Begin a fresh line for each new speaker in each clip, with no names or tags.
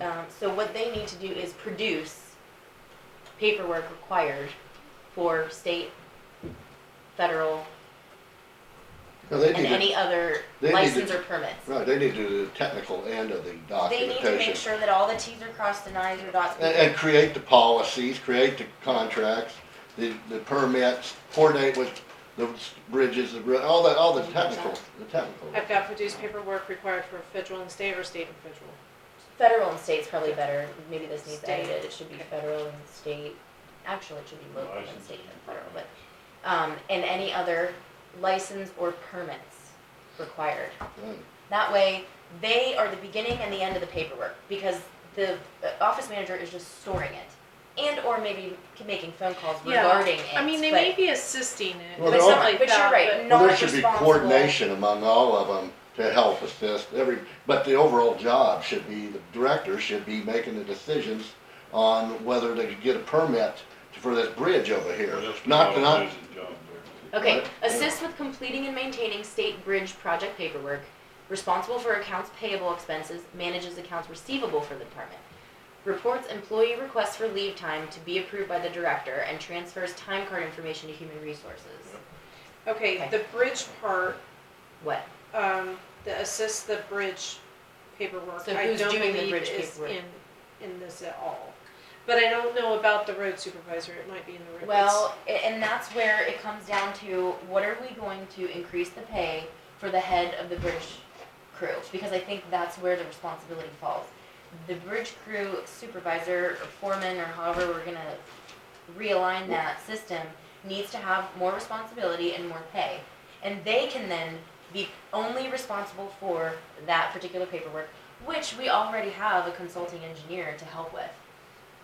Um, so what they need to do is produce paperwork required for state, federal,
No, they
and
need, to-
any other
they need to-
license or permits.
right, they need to do the technical end of
They
the
need to make
documentation.
sure that all the Ts are crossed and Is are dots.
And, and create the policies, create the contracts, the, the permits, coordinate with the bridges, the, ro- all the, all the technical, the technical.
I've got produced paperwork required for federal and state or state and federal.
Federal and state's probably better, maybe this needs
State.
edited, it should be federal and state, actually, it should be local and
License.
state and federal, but, um, and any other license or permits required.
Right.
That way, they are the beginning and the end of the paperwork, because the uh, office manager is just storing it, and or maybe c- making phone calls regarding it,
I mean, they
but-
may be assisting it,
Well,
but
they're all-
something like
But you're
that,
right,
but-
not
Well, there should be
responsible.
coordination among all of them to help assist every, but the overall job should be, the director should be making the decisions on whether they could get a permit for this bridge over here.
Or just
Not,
all
not,
losing job there.
Okay,
Right.
assist with completing and maintaining state bridge project paperwork, responsible for accounts payable expenses, manages accounts receivable for the department. Reports employee requests for leave time to be approved by the director and transfers time card information to human resources.
Okay, the bridge part,
What?
um, the assist the bridge paperwork,
So
I
who's
don't
doing the
believe
bridge
is
paperwork?
in, in this at all. But I don't know about the road supervisor, it might be in the road.
Well, a- and that's where it comes down to, what are we going to increase the pay for the head of the bridge crew? Because I think that's where the responsibility falls. The bridge crew supervisor, or foreman, or however we're gonna realign that system, needs to have more responsibility and more pay. And they can then be only responsible for that particular paperwork, which we already have a consulting engineer to help with.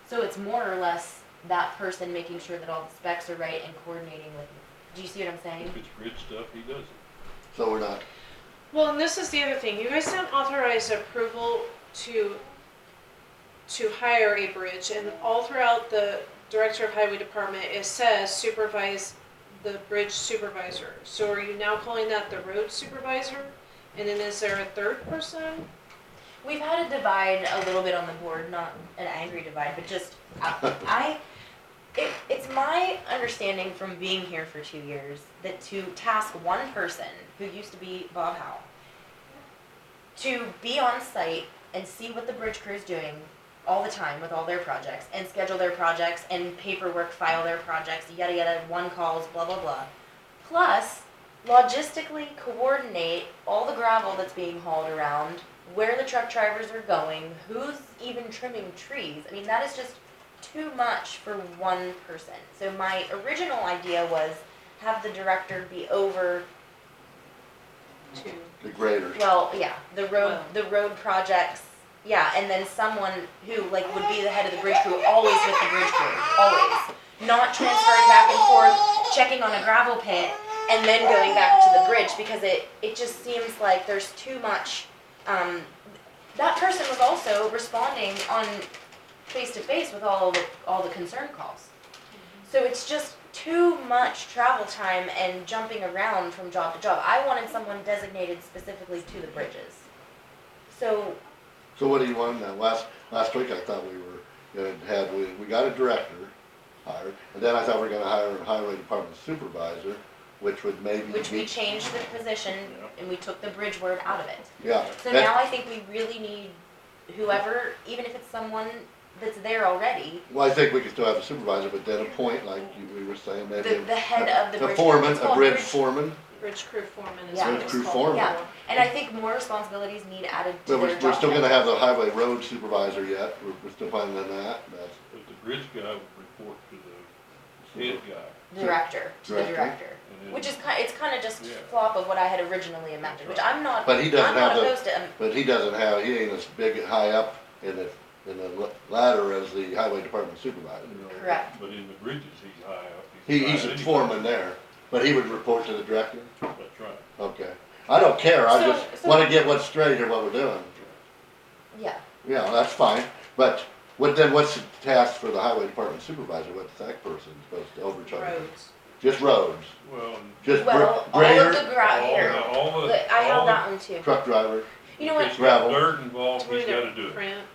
So it's more or less that person making sure that all the specs are right and coordinating with, do you see what I'm saying?
If it's grid stuff, he does it.
so we're not,
Well, and this is the other thing, you guys don't authorize approval to, to hire a bridge, and all throughout the Director of Highway Department, it says supervise the bridge supervisor. So are you now calling that the road supervisor? And then is there a third person?
We've had a divide a little bit on the board, not an angry divide, but just, I- I, it, it's my understanding from being here for two years that to task one person, who used to be Bob Howell, to be on site and see what the bridge crew is doing all the time with all their projects and schedule their projects and paperwork file their projects, yada yada, one calls, blah blah blah. Plus, logistically coordinate all the gravel that's being hauled around, where the truck drivers are going, who's even trimming trees. I mean, that is just too much for one person. So my original idea was have the director be over
Two.
the graders.
well, yeah, the road,
Well.
the road projects, yeah, and then someone who like would be the head of the bridge crew, always with the bridge crew, always. Not transferring back and forth, checking on a gravel pit, and then going back to the bridge, because it, it just seems like there's too much, um, that person was also responding on face to face with all the, all the concern calls. So it's just too much travel time and jumping around from job to job. I wanted someone designated specifically to the bridges. So,
So what do you want now? Last, last week I thought we were gonna have, we, we got a director hired, and then I thought we were gonna hire a highway department supervisor, which would maybe
which we
be,
changed the position and we took the bridge word out of it.
yeah.
So
that-
now I think we really need whoever, even if it's someone that's there already,
Well, I think we could still have a supervisor, but then appoint, like you- we were saying,
the,
maybe.
the head of the
A
bridge. Oh,
foreman,
it's
a
called
bridge foreman,
Bridge crew foreman is
Yeah.
what
Bridge
it's
crew
called.
foreman.
Yeah, and I think more responsibilities need added to
but
their
we're,
job.
we're still gonna have the highway road supervisor yet, we're, we're still planning on that, that's.
But the bridge guy would report to the head guy.
Director, to the
Director.
director.
and then-
Which is kind, it's kind of just
Yeah.
flop of what I had originally imagined, which I'm not,
But he
I'm
doesn't
not
have the-
opposed to, um,
But he doesn't have, he ain't as big, and high up in the, in the la- ladder as the highway department supervisor.
correct.
But in the bridges, he's high up.
He,
high
he's a
anyway.
foreman there, but he would report to the director,
That's right.
okay. I don't care, I
So-
just
so-
wanna get what's straight here, what we're doing.
yeah.
Yeah, that's fine, but what, then what's the task for the highway department supervisor, what's that person supposed to overcharge?
Roads.
Just roads,
Well, and
just
Well,
gr-
all of
grader,
the grout
all
here,
the, all the.
Oh.
Look, I
all
held
the-
that one too.
truck driver.
You know what?
If he's got
Gravel.
dirt involved, he's gotta do it.
Print.